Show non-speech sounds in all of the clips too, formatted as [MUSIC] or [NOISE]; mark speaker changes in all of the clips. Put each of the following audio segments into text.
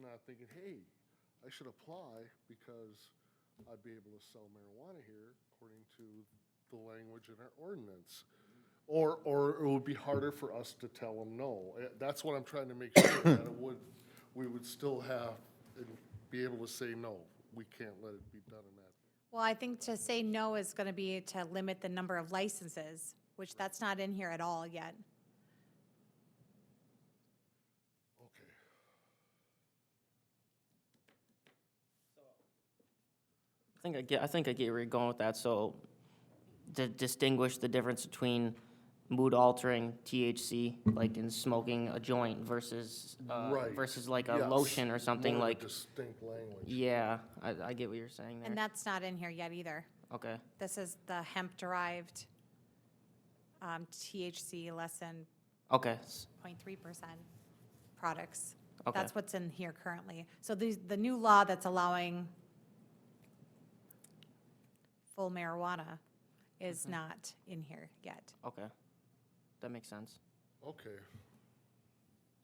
Speaker 1: start thinking, hey, I should apply because I'd be able to sell marijuana here according to the language in our ordinance. Or, or it would be harder for us to tell them no. Eh, That's what I'm trying to make sure, that it would, we would still have, and be able to say no. We can't let it be done in that.
Speaker 2: Well, I think to say no is going to be to limit the number of licenses, which that's not in here at all yet.
Speaker 1: Okay.
Speaker 3: I think I get, I think I get where you're going with that, so to distinguish the difference between mood altering THC, like in smoking a joint versus, uh,
Speaker 1: Right.
Speaker 3: versus like a
Speaker 1: Yes.
Speaker 3: lotion or something
Speaker 1: More of a
Speaker 3: like,
Speaker 1: Distinct language.
Speaker 3: yeah, I, I get what you're saying
Speaker 2: And
Speaker 3: there.
Speaker 2: that's not in here yet either.
Speaker 3: Okay,
Speaker 2: This is the hemp-derived um, THC less than
Speaker 3: okay, s-
Speaker 2: 0.3% products.
Speaker 3: Okay.
Speaker 2: That's what's in here currently. So these, the new law that's allowing full marijuana is not in here yet.
Speaker 3: okay. That makes sense.
Speaker 1: Okay,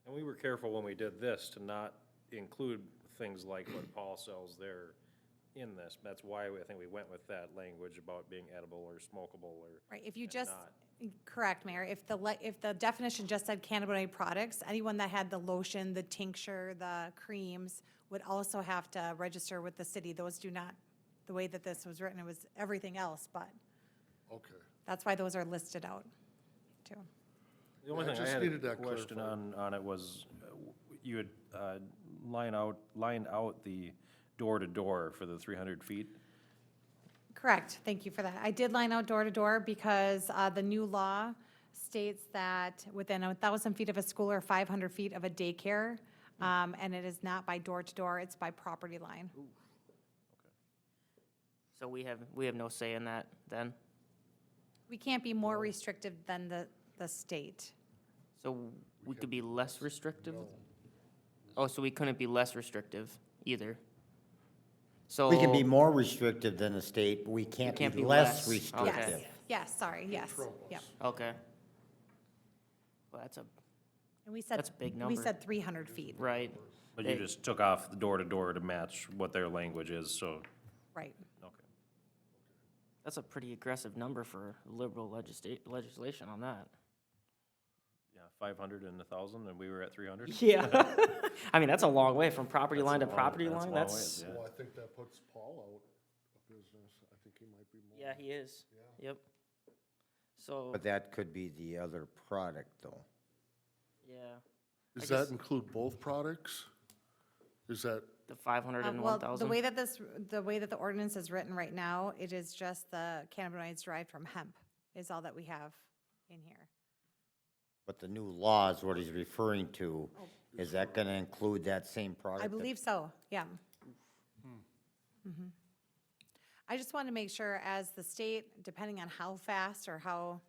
Speaker 4: And we were careful when we did this to not include things like what Paul sells there in this. That's why I think we went with that language about being edible or smokable or.
Speaker 2: Right, if you just,
Speaker 4: not.
Speaker 2: correct, Mayor, if the, le- if the definition just said cannabinoid products, anyone that had the lotion, the tincture, the creams would also have to register with the city. Those do not, the way that this was written, it was everything else, but
Speaker 1: okay.
Speaker 2: that's why those are listed out, too.
Speaker 4: The only
Speaker 1: Yeah, I
Speaker 4: thing I
Speaker 1: just
Speaker 4: had
Speaker 1: needed
Speaker 4: a
Speaker 1: that
Speaker 4: question on, on it was, uh, w- you had uh, line out, lined out the door-to-door for the three hundred feet.
Speaker 2: Correct, thank you for that. I did line out door-to-door because uh, the new law states that within a 1,000 feet of a school or 500 feet of a daycare, um, and it is not by door-to-door, it's by property line.
Speaker 3: So we have, we have no say in that then?
Speaker 2: We can't be more restrictive than the, the state.
Speaker 3: So we could be less restrictive? Oh, so we couldn't be less restrictive either? So.
Speaker 5: We can be more restrictive than the state, but we can't
Speaker 3: can't
Speaker 5: be
Speaker 3: be
Speaker 5: less
Speaker 3: less.
Speaker 5: restrictive.
Speaker 2: Yes,
Speaker 3: Oh, Okay.
Speaker 2: yes, sorry, yes, yep.
Speaker 3: Okay. Well, that's a,
Speaker 2: And we said.
Speaker 3: That's a big
Speaker 2: We
Speaker 3: number.
Speaker 2: said 300 feet,
Speaker 3: right,
Speaker 4: But you
Speaker 3: Hey.
Speaker 4: just took off the door-to-door to match what their language is, so,
Speaker 2: right.
Speaker 4: okay.
Speaker 3: that's a pretty aggressive number for liberal legisla- legislation on that.
Speaker 4: Yeah, five hundred and a thousand, and we were at three hundred?
Speaker 3: Yeah. [LAUGHS] I mean, that's a long way from property line to
Speaker 4: long-
Speaker 3: property
Speaker 4: that's a
Speaker 3: line,
Speaker 4: long
Speaker 3: that's,
Speaker 4: ways, yeah.
Speaker 1: Well, I think that puts Paul out of business. I think he might be more.
Speaker 3: yeah, he is, yep. So,
Speaker 5: But that could be the other product, though.
Speaker 3: yeah,
Speaker 1: Does
Speaker 3: I
Speaker 1: that
Speaker 3: guess-
Speaker 1: include both products? Is that,
Speaker 3: the five hundred
Speaker 2: Uh,
Speaker 3: and
Speaker 2: Well,
Speaker 3: one
Speaker 2: the way that
Speaker 3: thousand,
Speaker 2: this, the way that the ordinance is written right now, it is just the cannabinoids derived from hemp is all that we have in here.
Speaker 5: But the new law is what he's referring to. Is that gonna include that same product?
Speaker 2: Oh. I
Speaker 5: that-
Speaker 2: believe so, yeah. Mhm. I just want to make sure as the state, depending on how fast or how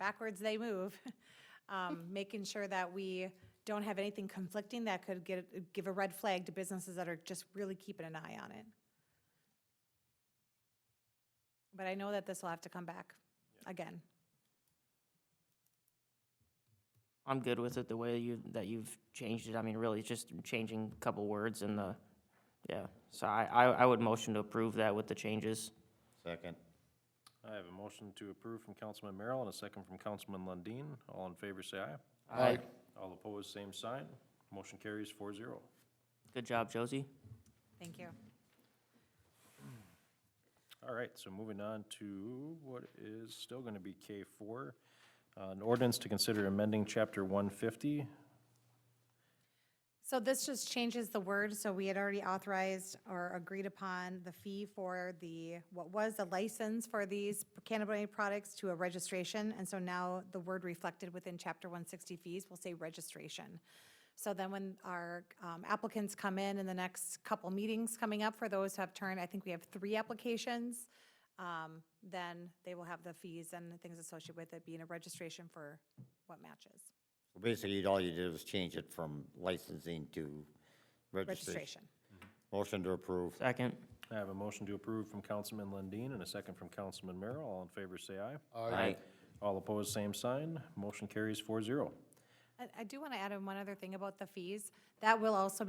Speaker 2: backwards they move, [LAUGHS] um, making sure that we don't have anything conflicting that could get, give a red flag to businesses that are just really keeping an eye on it. But I know that this will have to come back again.
Speaker 3: I'm good with it, the way you, that you've changed it, I mean, really, it's just changing a couple words in the, yeah. So I, I, I would motion to approve that with the changes.
Speaker 5: Second.
Speaker 4: I have a motion to approve from Councilman Merrill and a second from Councilman Lundin. All in favor, say aye.
Speaker 3: Aye.
Speaker 4: All opposed, same sign. Motion carries four zero.
Speaker 3: Good job, Josie.
Speaker 2: Thank you.
Speaker 4: All right, so moving on to what is still going to be K four. Uh, an ordinance to consider amending chapter one fifty.
Speaker 2: So this just changes the word, so we had already authorized or agreed upon the fee for the, what was the license for these cannabinoid products to a registration, and so now the word reflected within chapter one sixty fees will say registration. So then when our um, applicants come in in the next couple meetings coming up, for those who have turned, I think we have three applications, um, then they will have the fees and the things associated with it being a registration for what matches,
Speaker 5: Basically, all you did was change it from licensing to registration.
Speaker 2: registration.
Speaker 5: Motion to approve.
Speaker 3: Second,
Speaker 4: I have a motion to approve from Councilman Lundin and a second from Councilman Merrill. All in favor, say aye.
Speaker 3: aye,
Speaker 4: All opposed, same sign. Motion carries four zero.
Speaker 2: I, I do want to add in one other thing about the fees. That will also be